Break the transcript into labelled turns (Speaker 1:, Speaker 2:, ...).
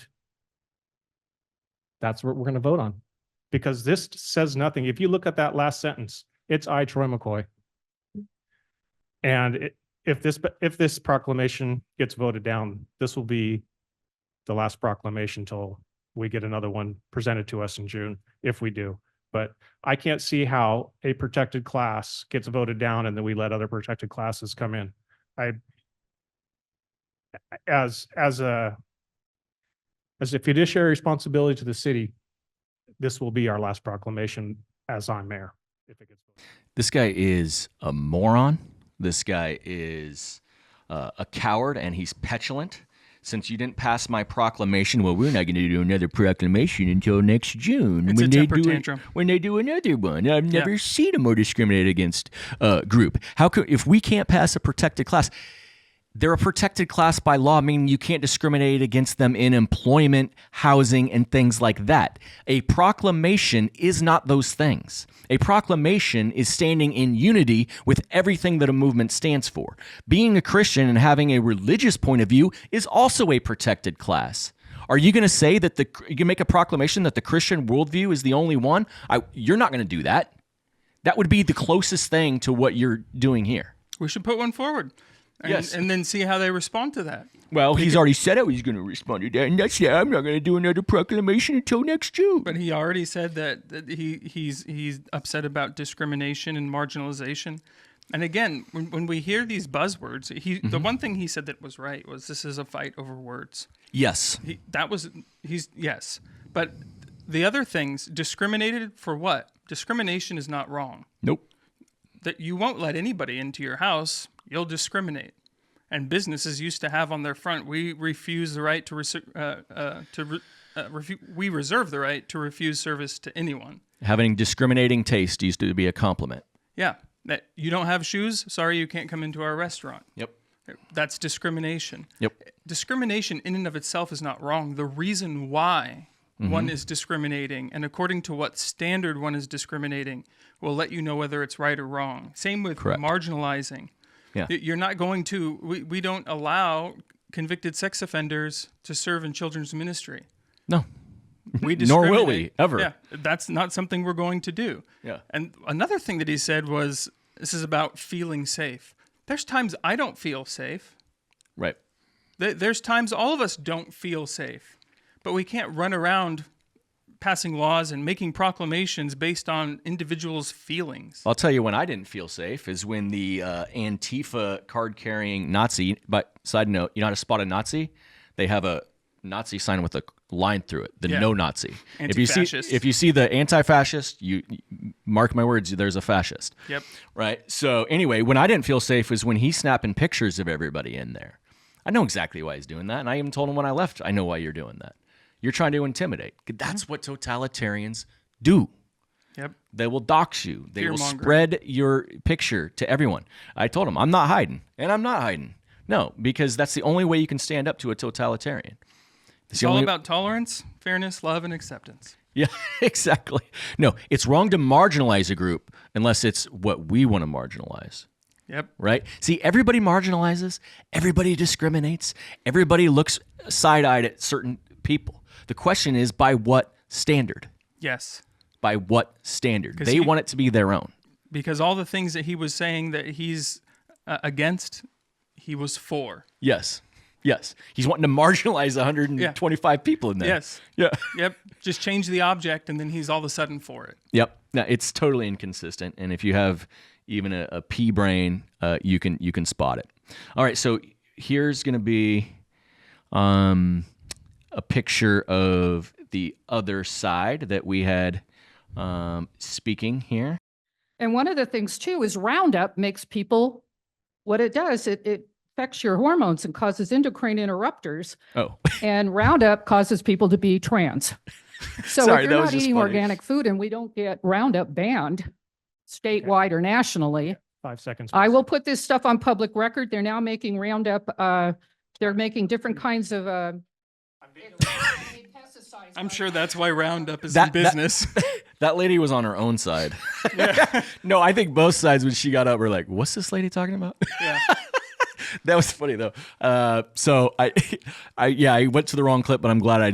Speaker 1: That's what we're going to vote on. Because this says nothing. If you look at that last sentence, it's I, Troy McCoy. And it- if this, if this proclamation gets voted down, this will be the last proclamation till we get another one presented to us in June, if we do. But I can't see how a protected class gets voted down and then we let other protected classes come in. I as, as a as a fiduciary responsibility to the city, this will be our last proclamation as I'm mayor. if it gets voted.
Speaker 2: This guy is a moron. This guy is uh, a coward and he's petulant. Since you didn't pass my proclamation, well, we're not going to do another proclamation until next June.
Speaker 3: It's a temper
Speaker 2: do
Speaker 3: tantrum.
Speaker 2: when they do another one, I've
Speaker 3: Yeah.
Speaker 2: never seen a more discriminated against uh, group. How could if we can't pass a protected class? They're a protected class by law, meaning you can't discriminate against them in employment, housing, and things like that. A proclamation is not those things. A proclamation is standing in unity with everything that a movement stands for. Being a Christian and having a religious point of view is also a protected class. Are you going to say that the you can make a proclamation that the Christian worldview is the only one? I, you're not going to do that. That would be the closest thing to what you're doing here.
Speaker 3: We should put one forward. And,
Speaker 2: Yes.
Speaker 3: and then see how they respond to that.
Speaker 2: Well, he's already said how he's going to respond to that, and that's yeah. I'm not going to do another proclamation until next June.
Speaker 3: But he already said that, that he he's he's upset about discrimination and marginalization. And again, when, when we hear these buzzwords, he the
Speaker 2: Mm-hmm.
Speaker 3: one thing he said that was right was this is a fight over words.
Speaker 2: yes,
Speaker 3: He, that was he's yes, but the other things discriminated for what? Discrimination is not wrong.
Speaker 2: nope.
Speaker 3: that you won't let anybody into your house, you'll discriminate. And businesses used to have on their front, we refuse the right to rece- uh, uh, to re- uh, refu- we reserve the right to refuse service to anyone.
Speaker 2: Having discriminating taste used to be a compliment.
Speaker 3: Yeah, that you don't have shoes, sorry, you can't come into our restaurant.
Speaker 2: Yep.
Speaker 3: That's discrimination.
Speaker 2: Yep.
Speaker 3: Discrimination in and of itself is not wrong. The reason why one
Speaker 2: Mm-hmm.
Speaker 3: is discriminating and according to what standard one is discriminating will let you know whether it's right or wrong. Same with
Speaker 2: Correct.
Speaker 3: marginalizing.
Speaker 2: Yeah.
Speaker 3: Y- You're not going to, we, we don't allow convicted sex offenders to serve in children's ministry.
Speaker 2: No.
Speaker 3: We
Speaker 2: Nor will we,
Speaker 3: discriminate.
Speaker 2: ever.
Speaker 3: Yeah, that's not something we're going to do.
Speaker 2: Yeah.
Speaker 3: And another thing that he said was this is about feeling safe. There's times I don't feel safe.
Speaker 2: Right.
Speaker 3: Th- There's times all of us don't feel safe, but we can't run around passing laws and making proclamations based on individuals' feelings.
Speaker 2: I'll tell you when I didn't feel safe is when the uh, Antifa card carrying Nazi, but side note, you know how to spot a Nazi? They have a Nazi sign with a line through it, the
Speaker 3: Yeah.
Speaker 2: no Nazi. If you see
Speaker 3: Anti-fascist.
Speaker 2: if you see the anti fascist, you mark my words, there's a fascist.
Speaker 3: Yep.
Speaker 2: Right. So anyway, when I didn't feel safe was when he's snapping pictures of everybody in there. I know exactly why he's doing that, and I even told him when I left, I know why you're doing that. You're trying to intimidate. That's
Speaker 3: Mm-hmm.
Speaker 2: what totalitarians do.
Speaker 3: Yep.
Speaker 2: They will dox you. They will
Speaker 3: Fear-mongering.
Speaker 2: spread your picture to everyone. I told him, I'm not hiding, and I'm not hiding. No, because that's the only way you can stand up to a totalitarian. It's
Speaker 3: It's all about tolerance, fairness, love, and acceptance.
Speaker 2: yeah, exactly. No, it's wrong to marginalize a group unless it's what we want to marginalize.
Speaker 3: Yep.
Speaker 2: Right? See, everybody marginalizes, everybody discriminates, everybody looks side eyed at certain people. The question is by what standard?
Speaker 3: Yes.
Speaker 2: By what standard? They
Speaker 3: he-
Speaker 2: want it to be their own.
Speaker 3: Because all the things that he was saying that he's uh, against, he was for.
Speaker 2: Yes. Yes. He's wanting to marginalize 125 people in there.
Speaker 3: Yes.
Speaker 2: Yeah.
Speaker 3: Yep. Just change the object, and then he's all of a sudden for it.
Speaker 2: Yep. No, it's totally inconsistent. And if you have even a, a pea brain, uh, you can you can spot it. All right. So here's going to be um, a picture of the other side that we had um, speaking here.
Speaker 4: And one of the things too is Roundup makes people, what it does, it, it affects your hormones and causes endocrine interrupters.
Speaker 2: Oh,
Speaker 4: And Roundup causes people to be trans. So
Speaker 2: Sorry,
Speaker 4: if
Speaker 2: that
Speaker 4: you're
Speaker 2: was
Speaker 4: not
Speaker 2: just
Speaker 4: eating
Speaker 2: funny.
Speaker 4: organic food and we don't get Roundup banned statewide or nationally,
Speaker 1: Five seconds.
Speaker 4: I
Speaker 1: please.
Speaker 4: will put this stuff on public record. They're now making Roundup, uh, they're making different kinds of, uh,
Speaker 3: I'm sure that's why Roundup is in
Speaker 2: That- that-
Speaker 3: business.
Speaker 2: that lady was on her own side. no, I think both sides when she got up were like, what's this lady talking about?
Speaker 3: yeah.
Speaker 2: that was funny though. Uh, so I, I yeah, I went to the wrong clip, but I'm glad I